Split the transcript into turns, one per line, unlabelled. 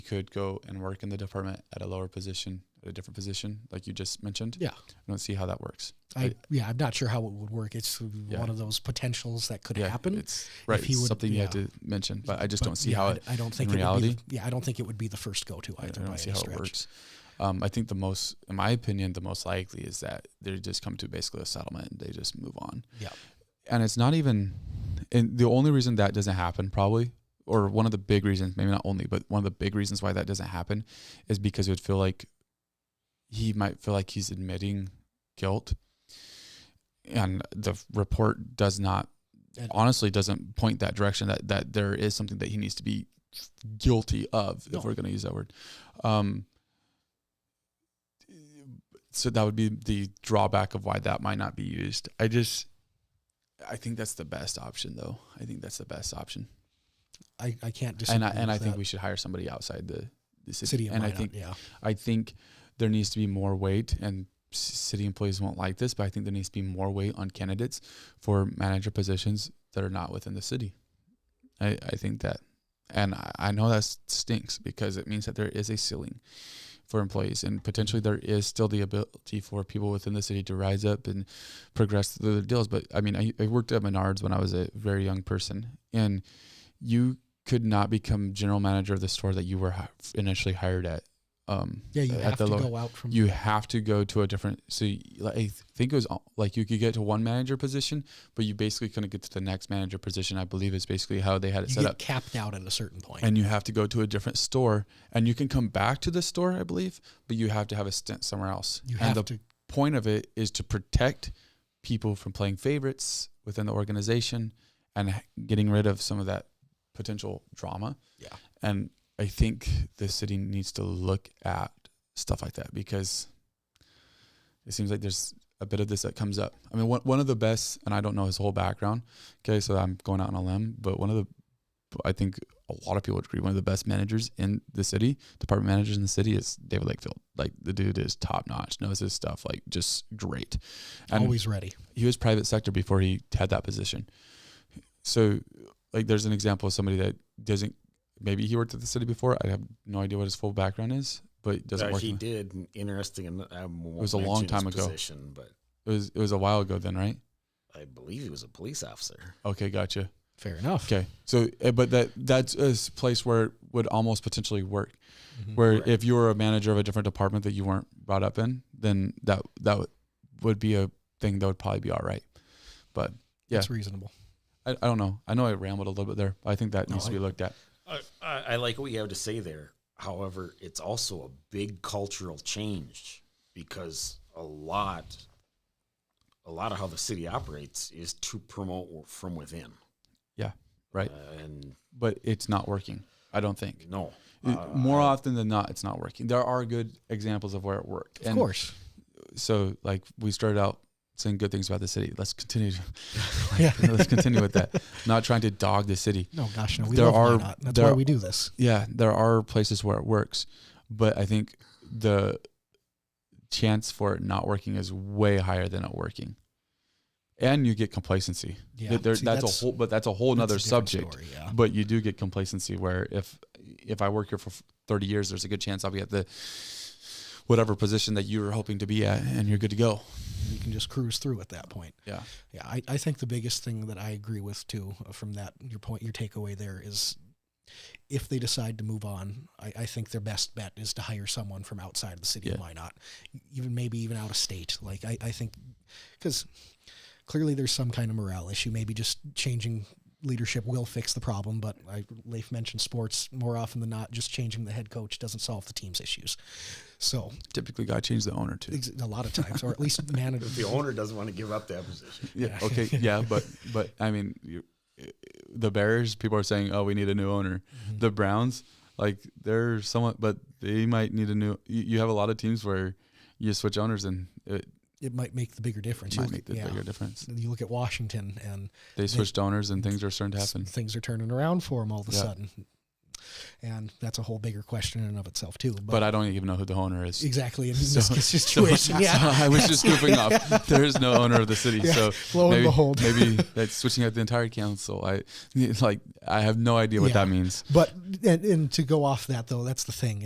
could go and work in the department at a lower position, at a different position, like you just mentioned.
Yeah.
I don't see how that works.
I, yeah, I'm not sure how it would work. It's
Yeah.
one of those potentials that could
yeah,
happen.
It's right.
he
it's
would-
something you had
yeah.
to mention, but I just
but
don't see
yeah,
how
I-
it.
I, don't think
in
it would be
reality-
the- yeah, I don't think it would be the first go to
I
either. by
don't see
any
how
stretch.
it works. Um, I think the most, in my opinion, the most likely is that they just come to basically a settlement and they just move on.
Yeah.
And it's not even, and the only reason that doesn't happen probably, or one of the big reasons, maybe not only, but one of the big reasons why that doesn't happen is because it would feel like he might feel like he's admitting guilt. And the report does not,
And-
honestly, doesn't point that direction that, that there is something that he needs to be guilty of,
No.
if we're going to use that word. Um, so that would be the drawback of why that might not be used. I just, I think that's the best option, though. I think that's the best option,
I, I can't disagree.
and I and
with
I think
that.
we should hire somebody outside the, the city.
city of
and I
Minot,
think
yeah.
I think there needs to be more weight, and c- city employees won't like this, but I think there needs to be more weight on candidates for manager positions that are not within the city. I, I think that, and I, I know that stinks because it means that there is a ceiling for employees, and potentially there is still the ability for people within the city to rise up and progress through their deals. But I mean, I, I worked at Menards when I was a very young person, and you could not become general manager of the store that you were hi- initially hired at. Um,
Yeah, you
at
have
the
to
lower-
go out from
you have to go to a different so you, like, i think it was all- like you could get to one manager position but you basically couldn't get to the next manager position i believe is basically how they had it
you
set
get
up
capped out at a certain point.
and you have to go to a different store and you can come back to the store i believe but you have to have a stint somewhere else
you
and
have
the
to
point of it is to protect people from playing favorites within the organization and h- getting rid of some of that potential drama.
Yeah.
And I think the city needs to look at stuff like that because it seems like there's a bit of this that comes up. I mean, one, one of the best, and I don't know his whole background. Okay. So I'm going out on a limb, but one of the, I think a lot of people would agree, one of the best managers in the city, department managers in the city is David Lakefield. Like the dude is top notch, knows his stuff, like just great. And
always ready.
he was private sector before he had that position. So, like, there's an example of somebody that doesn't. Maybe he worked at the city before. I have no idea what his full background is, but doesn't
Uh,
work.
he
in-
did and interesting. and I won't
was a long
mention his
time ago.
Position, but
It was it was a while ago then, right?
I believe he was a police officer.
Okay, gotcha.
Fair enough.
Okay, so eh, but that that's a s- place where it would almost potentially work.
Mhm.
Where
Correct.
if you were a manager of a different department that you weren't brought up in, then that that would- would be a thing that would probably be all right. But yeah.
That's reasonable.
I, I don't know. I know I rambled a little bit there. But I think that
No,
needs to
I-
be looked at.
I, I I like what you have to say there. However, it's also a big cultural change because a lot, a lot of how the city operates is to promote from within.
Yeah, right.
Uh, and
but it's not working. I don't think.
no,
It-
uh,
More often than not, it's not working. There are good examples of where it worked.
Of course.
So, like, we started out saying good things about the city. Let's continue.
Yeah.
let's continue with that. Not trying to dog the city.
No, gosh, no. We
There
love
are-
Minot. That's
there
why
are-
we do this.
Yeah, there are places where it works, but I think the chance for it not working is way higher than it working. And you get complacency.
Yeah.
There- there-
See,
that's, a whole, but that's a whole
that's a
nother
different
subject.
story, yeah.
but you do get complacency where if if I work here for 30 years, there's a good chance I'll be at the whatever position that you were hoping to be at, and you're good to go.
You can just cruise through at that point.
Yeah,
Yeah, I, I think the biggest thing that I agree with too uh, from that your point your takeaway there is if they decide to move on, I, I think their best bet is to hire someone from outside of the city
Yeah.
of Minot, even maybe even out of state. Like I, I think because clearly there's some kind of morale issue. Maybe just changing leadership will fix the problem. But I, Leif mentioned sports more often than not. Just changing the head coach doesn't solve the team's issues. So
typically got to change the owner too.
ex- a lot of times, or at least manage.
if the owner doesn't want to give up that position,
Yeah. Okay. Yeah, but but I mean, you, the Bears people are saying, oh, we need a new owner.
Mm-hmm.
The Browns, like they're somewhat, but they might need a new. You, you have a lot of teams where you switch owners and it
It might make the bigger difference. You
might
look-
make the
yeah.
bigger difference.
you look at Washington and
They switched owners and things are starting to
s-
happen.
things are turning around for them all of a
Yeah.
sudden. and that's a whole bigger question in and of itself too. But,
but I don't even know who the owner is.
exactly in this this situation,
so-
yeah,
so I was just goofing off. There is no owner of the city,
Yeah,
so
lo and
maybe,
behold.
maybe that's switching out the entire council. I like, I have no idea what
Yeah.
that means.
But and, and to go off that though, that's the thing.